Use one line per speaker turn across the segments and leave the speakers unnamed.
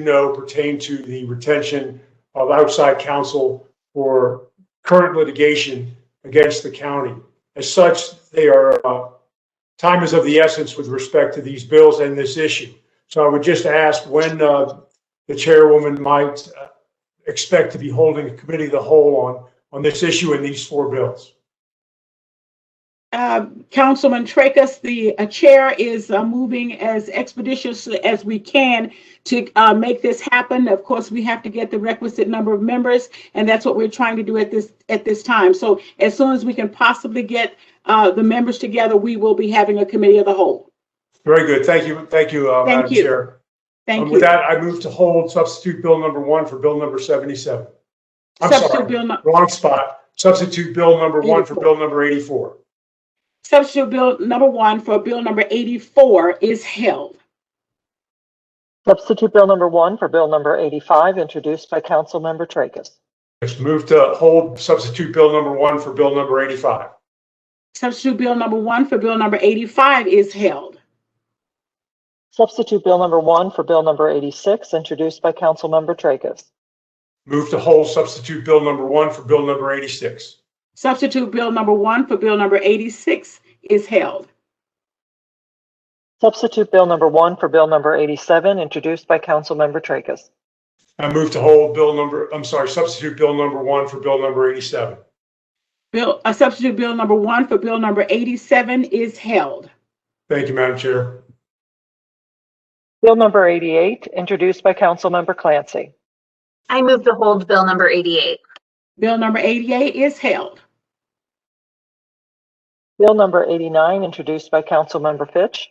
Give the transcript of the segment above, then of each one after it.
know pertain to the retention of outside counsel for current litigation against the county. As such, they are, uh, time is of the essence with respect to these bills and this issue. So I would just ask when uh, the chairwoman might uh, expect to be holding a committee of the whole on, on this issue and these four bills.
Uh, Councilman Tracus, the uh, chair is uh, moving as expeditiously as we can to uh, make this happen. Of course, we have to get the requisite number of members, and that's what we're trying to do at this, at this time. So as soon as we can possibly get uh, the members together, we will be having a committee of the whole.
Very good. Thank you, thank you, uh,
Thank
Madam
you.
Chair.
Thank
And
you.
With that, I move to hold substitute bill number one for bill number 77. I'm
Substitute
sorry,
bill, nu-
wrong spot. Substitute bill number one for
84.
bill number 84.
substitute bill number one for bill number 84 is held.
Substitute Bill Number 1 for Bill Number 85, introduced by Councilmember Tracus.
Yes, move to hold substitute bill number one for bill number 85.
Substitute bill number one for bill number 85 is held.
Substitute Bill Number 1 for Bill Number 86, introduced by Councilmember Tracus.
Move to hold substitute bill number one for bill number 86.
Substitute Bill number one for Bill number 86 is held.
Substitute Bill Number 1 for Bill Number 87, introduced by Councilmember Tracus.
I move to hold bill number, I'm sorry, substitute bill number one for bill number 87.
Bill, uh, substitute Bill number one for Bill number 87 is held.
Thank you, Madam Chair.
Bill Number 88, introduced by Councilmember Clancy.
I move to hold Bill number 88.
Bill number 88 is held.
Bill Number 89, introduced by Councilmember Fitch.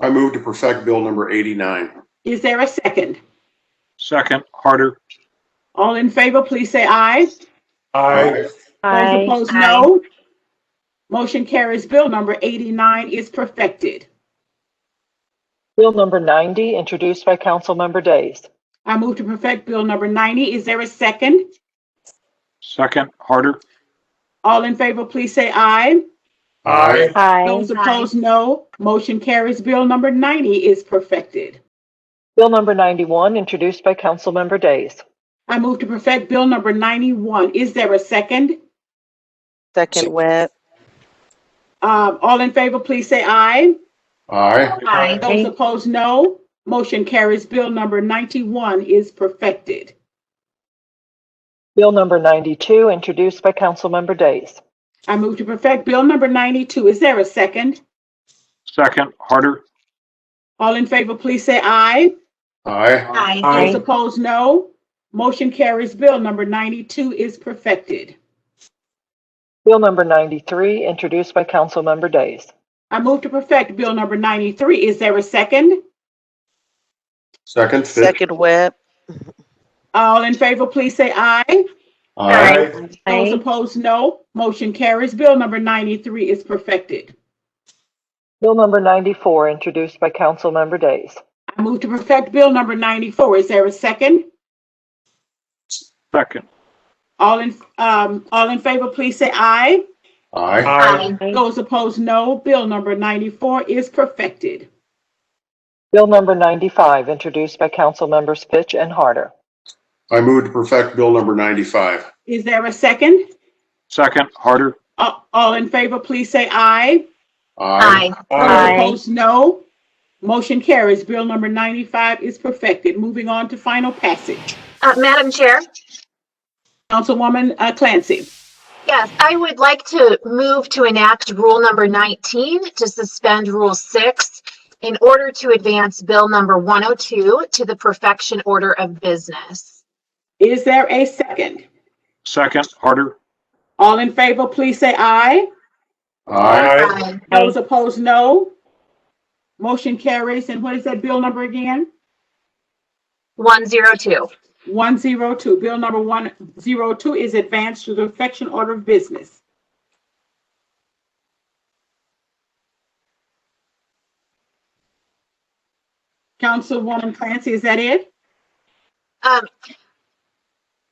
I move to perfect Bill number 89.
Is there a second?
Second, Harder.
All in favor, please say aye.
I,
Those opposed,
Aye.
no. Motion carries. Bill number 89 is perfected.
Bill Number 90, introduced by Councilmember Days.
I move to perfect Bill number 90. Is there a second?
Second, Harder.
All in favor, please say aye.
Aye.
Aye.
Those opposed, no. Motion carries. Bill number 90 is perfected.
Bill Number 91, introduced by Councilmember Days.
I move to perfect Bill number 91. Is there a second?
Second Webb.
Um, All in favor, please say aye.
Aye.
Aye.
Those opposed, no. Motion carries. Bill number 91 is perfected.
Bill number 92, introduced by Councilmember Days.
I move to perfect Bill number 92. Is there a second?
Second, Harder.
All in favor, please say aye.
Aye.
Aye.
I,
Those opposed, no. Motion carries. Bill number 92 is perfected.
Bill number 93, introduced by Councilmember Days.
I move to perfect Bill number 93. Is there a second?
Second, Fitch.
Second Webb.
All in favor, please say aye.
Aye.
Those opposed, no. Motion carries. Bill number 93 is perfected.
Bill number 94, introduced by Councilmember Days.
I move to perfect Bill number 94. Is there a second?
Second,
All in, um, all in favor, please say aye.
Aye.
I,
Those opposed, no. Bill number 94 is perfected.
Bill number 95, introduced by Councilmembers Fitch and Harder.
I move to perfect Bill number 95.
Is there a second?
second, Harder.
A- All in favor, please say aye.
Aye.
I,
Opposed, no. Motion carries. Bill number 95 is perfected. Moving on to final passage.
Uh, Madam Chair,
Councilwoman uh, Clancy.
yes, I would like to move to enact Rule number 19 to suspend Rule 6 in order to advance Bill number 102 to the perfection order of business.
Is there a second?
Second, Harder.
All in favor, please say aye.
Aye.
Aye.
Those opposed, no. Motion carries. And what is that bill number again?
102.
102, Bill number 102 is advanced to the perfection order of business. Councilwoman Clancy, is that it?
Um,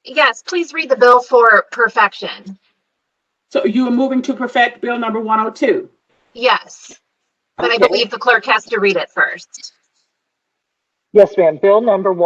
Yes, please read the bill for perfection.
So you are moving to perfect Bill number 102.
Yes, but I believe the clerk has to read it first.
Yes, ma'am. Bill number